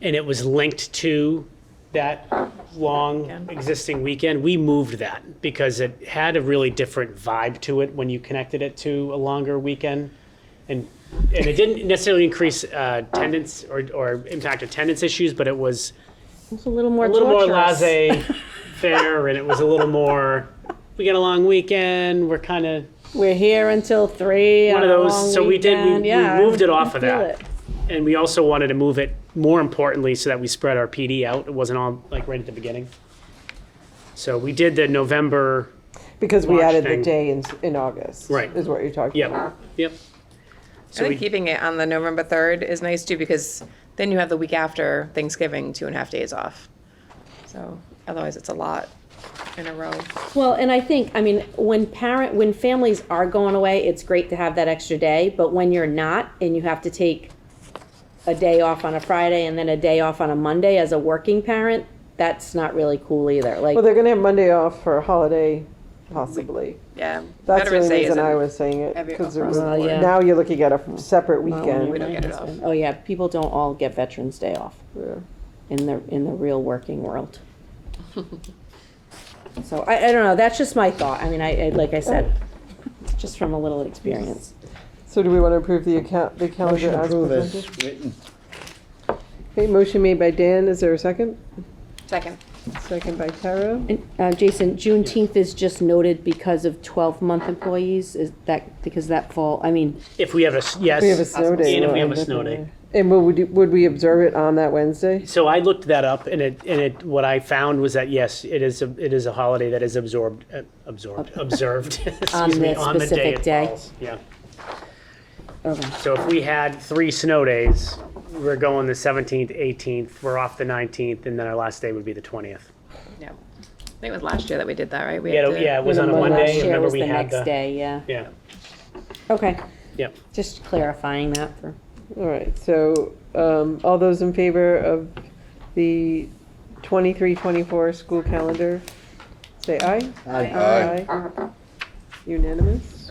and it was linked to that long existing weekend, we moved that because it had a really different vibe to it when you connected it to a longer weekend. And, and it didn't necessarily increase uh, attendance or, or impact attendance issues, but it was It's a little more a little more torturous. laissez faire and it was a little more, we got a long weekend, we're kind of We're here until three. one of on a those. long So we did, we- weekend. we Yeah, moved it I off of feel that. it. And we also wanted to move it, more importantly, so that we spread our PD out. It wasn't all like right at the beginning. So we did the November, Because we March added thing. the day in, in August. Right. Is what you're talking about. yep, yep. I So think we, keeping it on the November 3rd is nice too, because then you have the week after Thanksgiving, two and a half days off. So otherwise, it's a lot in a row. Well, and I think, I mean, when parent, when families are going away, it's great to have that extra day, but when you're not and you have to take a day off on a Friday and then a day off on a Monday as a working parent, that's not really cool either. Like, Well, they're going to have Monday off for a holiday, possibly. Yeah. That's the Veterans only Day reason I isn't- was saying it. every- Because across the Well, board. yeah. now you're looking at a separate We weekend. don't get it off. oh yeah, people don't all get Veterans Day off in the, in the real working world. So I, I don't know, that's just my thought. I mean, I, I, like I said, just from a little experience. So do we want to approve the account, the calendar Motion to as approve presented? is written. Okay, motion made by Dan. Is there a second? Second. Second by Tara. And, uh, Jason, Juneteenth is just noted because of twelve-month employees, is that, because that fall, I mean, if we have a, s- yes. We have a snow day. And if we have a right? snow day. And would, we- would we observe it on that Wednesday? So I looked that up and it, and it, what I found was that, yes, it is, a it is a holiday that is absorbed, uh, absorbed, observed. On excuse me, the on the specific it day. falls. Yeah. okay. So if we had three snow days, we're going the 17th, 18th, we're off the 19th, and then our last day would be the 20th. Yeah. I think it was last year that we did that, right? We Yeah, to- yeah, it was on a Remember Monday, Last year remember was we the had next the. day, yeah. Yeah, Okay, yep. just clarifying that for, All right, so, um, all those in favor of the twenty-three, twenty-four school calendar, say aye. Aye. Unanimous?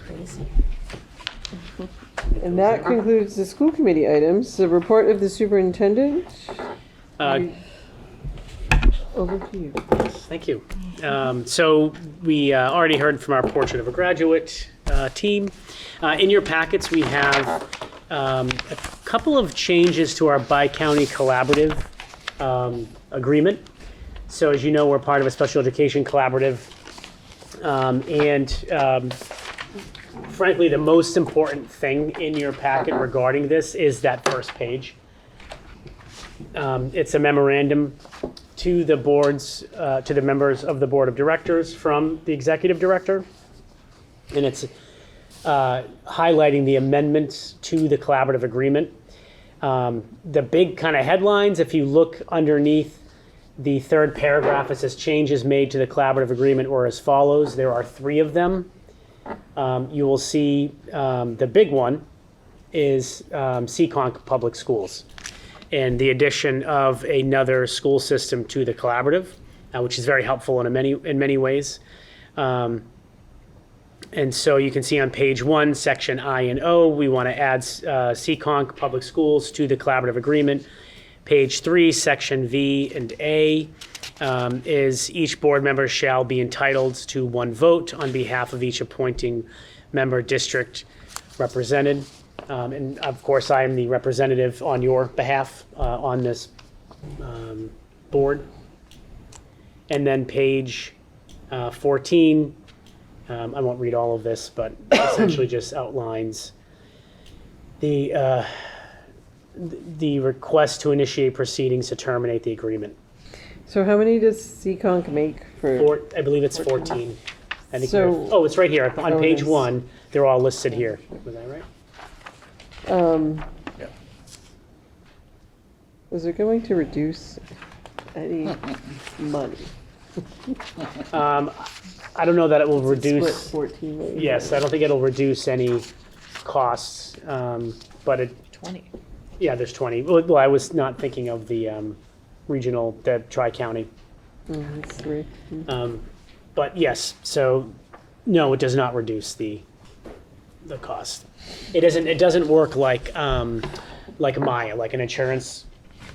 And that concludes the school committee items. The report of the superintendent, Uh, over to you. Thank you. Um, So we uh, already heard from our Portrait of a Graduate uh, team. Uh, In your packets, we have um, a couple of changes to our bi-county collaborative um, agreement. So as you know, we're part of a special education collaborative. Um, And um, frankly, the most important thing in your packet regarding this is that first page. Um, It's a memorandum to the boards, uh, to the members of the Board of Directors from the Executive Director. And it's uh, highlighting the amendments to the collaborative agreement. Um, The big kind of headlines, if you look underneath the third paragraph, it says changes made to the collaborative agreement were as follows. There are three of them. Um, You will see um, the big one is um, Seekonk Public Schools and the addition of another school system to the collaborative, uh, which is very helpful in a many in many ways. Um, and so you can see on page one, section I and O, we want to add uh, Seekonk Public Schools to the collaborative agreement. Page three, section V and A, um, is each board member shall be entitled to one vote on behalf of each appointing member district represented. Um, and of course, I am the representative on your behalf uh, on this um, board. And then page uh, 14, um, I won't read all of this, but essentially just outlines the, uh, th- the request to initiate proceedings to terminate the agreement. So how many does Seekonk make for? Four, I believe it's 14. I think So- we're- oh, it's right here. On Oh, it page is. one, they're all listed here. Was I right? Um, is it going to reduce any money? Um, I don't know that it will Split reduce. fourteen million. Yes, I don't think it'll reduce any costs, um, but it, 20. yeah, there's 20. Well, well, I was not thinking of the um, regional, the tri-county. Mm, that's three. Um, But yes, so, no, it does not reduce the, the cost. It isn't, it doesn't work like, um, like Maya, like an insurance